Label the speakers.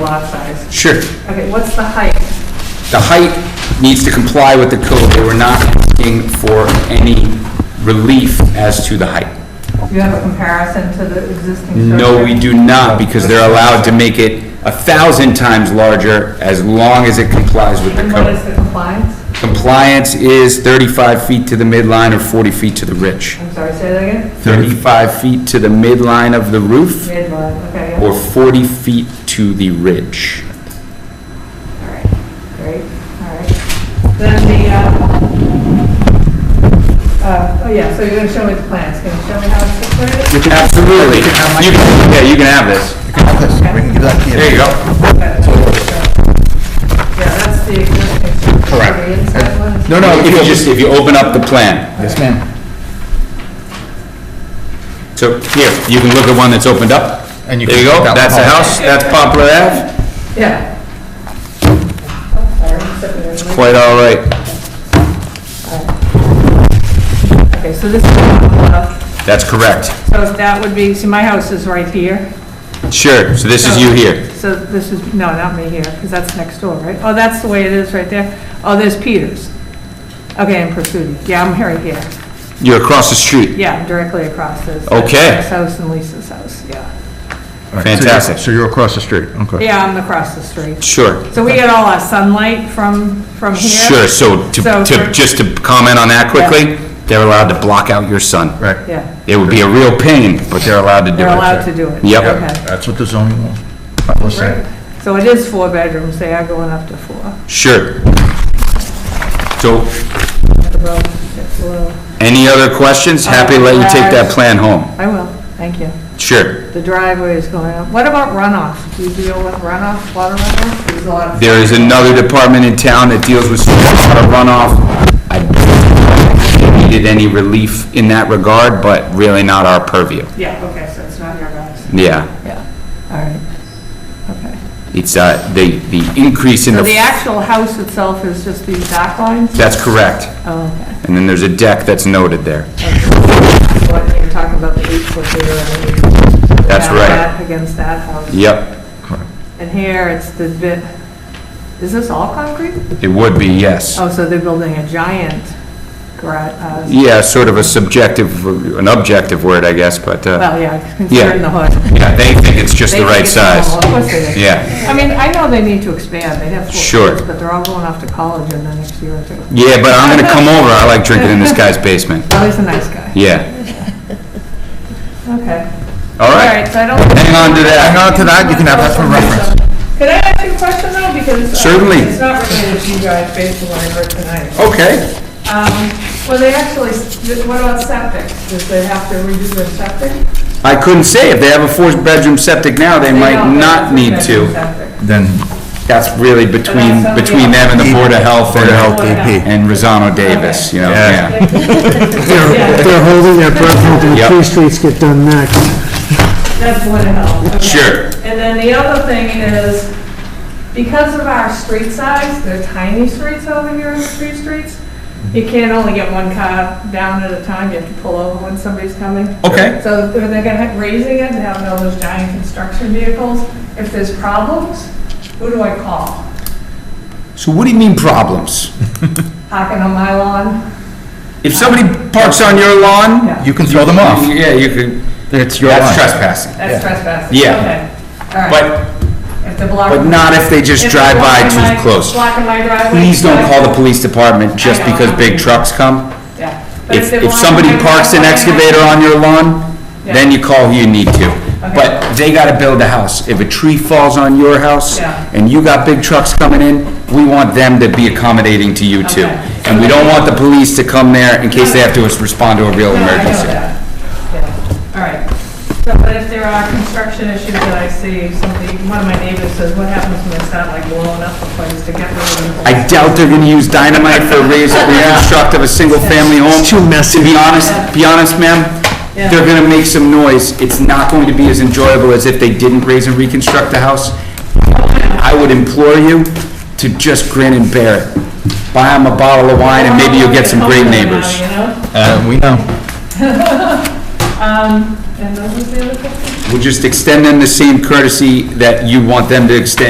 Speaker 1: lot size.
Speaker 2: Sure.
Speaker 1: Okay, what's the height?
Speaker 2: The height needs to comply with the code. They were not asking for any relief as to the height.
Speaker 1: Do you have a comparison to the existing structure?
Speaker 2: No, we do not, because they're allowed to make it a thousand times larger as long as it complies with the
Speaker 1: And what is
Speaker 2: code.
Speaker 1: the compliance?
Speaker 2: Compliance is 35 feet to the midline or 40 feet to the ridge.
Speaker 1: I'm sorry, say that again?
Speaker 2: 35 feet to the midline of the roof
Speaker 1: Midline, okay, yeah.
Speaker 2: or 40 feet to the ridge.
Speaker 1: all right, great, all right. Then the, uh, uh, oh yeah, so you're gonna show me the plans, can you show me how it's situated?
Speaker 2: Absolutely. You can- Yeah, you can have this.
Speaker 3: We can give that to you.
Speaker 2: There you go.
Speaker 1: Okay, so, Yeah, that's the existing structure.
Speaker 2: Correct.
Speaker 1: The inside one is-
Speaker 3: No, no,
Speaker 2: If you just, if you open up the plan.
Speaker 3: Yes, ma'am.
Speaker 2: So here, you can look at one that's opened up.
Speaker 3: And you
Speaker 2: There you
Speaker 3: can
Speaker 2: go,
Speaker 3: look at
Speaker 2: that's the
Speaker 3: that one.
Speaker 2: house, that's Poplar Ave.
Speaker 1: Yeah. Oh, sorry, I'm stepping in.
Speaker 2: Quite all right.
Speaker 1: Okay, so this is, uh,
Speaker 2: That's correct.
Speaker 1: so if that would be, see, my house is right here.
Speaker 2: Sure, so this is you here.
Speaker 1: So this is, no, not me here, because that's next door, right? Oh, that's the way it is right there. Oh, there's Peters. Okay, and Pursuit. Yeah, I'm right here.
Speaker 2: You're across the street.
Speaker 1: Yeah, I'm directly across this.
Speaker 2: Okay.
Speaker 1: This house and Lisa's house, yeah.
Speaker 2: Fantastic.
Speaker 3: So you're across the street, okay.
Speaker 1: Yeah, I'm across the street.
Speaker 2: Sure.
Speaker 1: So we get all our sunlight from, from here.
Speaker 2: Sure, so to,
Speaker 1: So
Speaker 2: to,
Speaker 1: for-
Speaker 2: just to comment on that quickly, they're allowed to block out your sun.
Speaker 3: Right.
Speaker 1: Yeah,
Speaker 2: It would be a real pain, but they're allowed to do it.
Speaker 1: they're allowed to do it.
Speaker 2: Yep.
Speaker 1: Okay.
Speaker 3: That's what the zoning law, I was saying.
Speaker 1: So it is four bedrooms, they are going up to four.
Speaker 2: Sure. So,
Speaker 1: The road gets a little-
Speaker 2: any other questions? Happy to let you take that plan home.
Speaker 1: I will, thank you.
Speaker 2: Sure.
Speaker 1: The driveway is going up. What about runoff? Do you deal with runoff, water runoff? There's a lot of...
Speaker 2: There is another department in town that deals with stormwater runoff. I don't think we needed any relief in that regard, but really not our purview.
Speaker 1: Yeah, okay, so it's not your guys.
Speaker 2: Yeah,
Speaker 1: Yeah, all right, okay.
Speaker 2: it's, uh, the, the increase in
Speaker 1: So the
Speaker 2: the,
Speaker 1: actual house itself is just these back lines?
Speaker 2: that's correct.
Speaker 1: Oh, okay.
Speaker 2: And then there's a deck that's noted there.
Speaker 1: So I think you're talking about the eight foot here and then you...
Speaker 2: That's
Speaker 1: add
Speaker 2: right.
Speaker 1: that Against that house.
Speaker 2: Yep,
Speaker 1: And here, it's the bit, is this all concrete?
Speaker 2: it would be, yes.
Speaker 1: Oh, so they're building a giant garage, uh,
Speaker 2: Yeah, sort of a subjective, an objective word, I guess, but, uh,
Speaker 1: well, yeah, considering the hood.
Speaker 2: yeah, they think it's just
Speaker 1: They
Speaker 2: the
Speaker 1: think
Speaker 2: right
Speaker 1: it's normal.
Speaker 2: size.
Speaker 1: Of course they do.
Speaker 2: Yeah.
Speaker 1: I mean, I know they need to expand, they have four
Speaker 2: Sure.
Speaker 1: kids, but they're all going off to college in the next year or two.
Speaker 2: Yeah, but I'm gonna come over, I like drinking in this guy's basement.
Speaker 1: Oh, he's a nice guy.
Speaker 2: Yeah,
Speaker 1: Okay.
Speaker 2: all
Speaker 1: All
Speaker 2: right.
Speaker 1: right, so I don't.
Speaker 2: Hang on to that.
Speaker 3: Hang on to that, you can have that for reference.
Speaker 1: Could I ask you a question though? Because. uh,
Speaker 2: Certainly.
Speaker 1: It's not related to you guys based on what I heard tonight.
Speaker 2: Okay.
Speaker 1: Um, well, they actually, what about septic? Does they have to redo their septic?
Speaker 2: I couldn't say, if they have a four-bedroom septic now, they might not need to.
Speaker 3: Then
Speaker 2: That's really between, between them and the Board of Health
Speaker 3: Board of Health,
Speaker 2: and,
Speaker 3: DP.
Speaker 2: and Rosano Davis, you know, yeah.
Speaker 3: Yeah.
Speaker 1: Yeah.
Speaker 4: They're they're holding their breath hoping
Speaker 2: Yep.
Speaker 4: Tree Streets get done next.
Speaker 1: That's Board of Health. okay.
Speaker 2: Sure.
Speaker 1: And then the other thing is, because of our street size, they're tiny streets over here in the street streets,
Speaker 2: Mm-hmm.
Speaker 1: you can't only get one car down at a time, you have to pull over when somebody's coming.
Speaker 2: Okay.
Speaker 1: So they're they're gonna have, raising it and having all those giant construction vehicles, if there's problems, who do I call?
Speaker 2: So what do you mean problems?
Speaker 1: Hocking on my lawn?
Speaker 2: If somebody parks on your lawn?
Speaker 1: Yeah,
Speaker 3: you can throw them off.
Speaker 2: Yeah, you could,
Speaker 3: It's your
Speaker 2: that's
Speaker 3: line.
Speaker 2: trespassing.
Speaker 1: that's trespassing.
Speaker 2: Yeah.
Speaker 1: Okay, all right.
Speaker 2: But,
Speaker 1: If they're blocking-
Speaker 2: but not if they just
Speaker 1: if they're
Speaker 2: drive by
Speaker 1: blocking my-
Speaker 2: too close.
Speaker 1: Blocking my driveway.
Speaker 2: Please don't call the police department just
Speaker 1: I know.
Speaker 2: because big trucks come.
Speaker 1: Yeah. But
Speaker 2: If,
Speaker 1: they're
Speaker 2: if
Speaker 1: blocking
Speaker 2: somebody
Speaker 1: my
Speaker 2: parks an
Speaker 1: driveway-
Speaker 2: excavator on your lawn, then
Speaker 1: Yeah.
Speaker 2: you call who you need to. But they gotta build a house. If a tree falls on your house
Speaker 1: Yeah.
Speaker 2: and you got big trucks coming in, we want them to be accommodating to you too.
Speaker 1: Okay.
Speaker 2: And we don't want the police to come there in case they have to respond to a real
Speaker 1: No, I know
Speaker 2: emergency.
Speaker 1: that. Yeah. All right. So, but if there are construction issues that I see, somebody, one of my neighbors says, what happens when they start like blowing up the place to get rid of them?
Speaker 2: I doubt they're gonna use dynamite for raise, reconstruct of a single-family home.
Speaker 4: It's too messy.
Speaker 2: To be honest, be honest, ma'am, they're gonna make some noise. It's not going to be as enjoyable as if they didn't raise and reconstruct the house. I would implore you to just grin and bear it. Buy them a bottle of wine and maybe you'll get some great neighbors.
Speaker 1: You know?
Speaker 3: Uh, We know.
Speaker 1: Um, and those are the other things?
Speaker 2: We'll just extend them the same courtesy that you want them to extend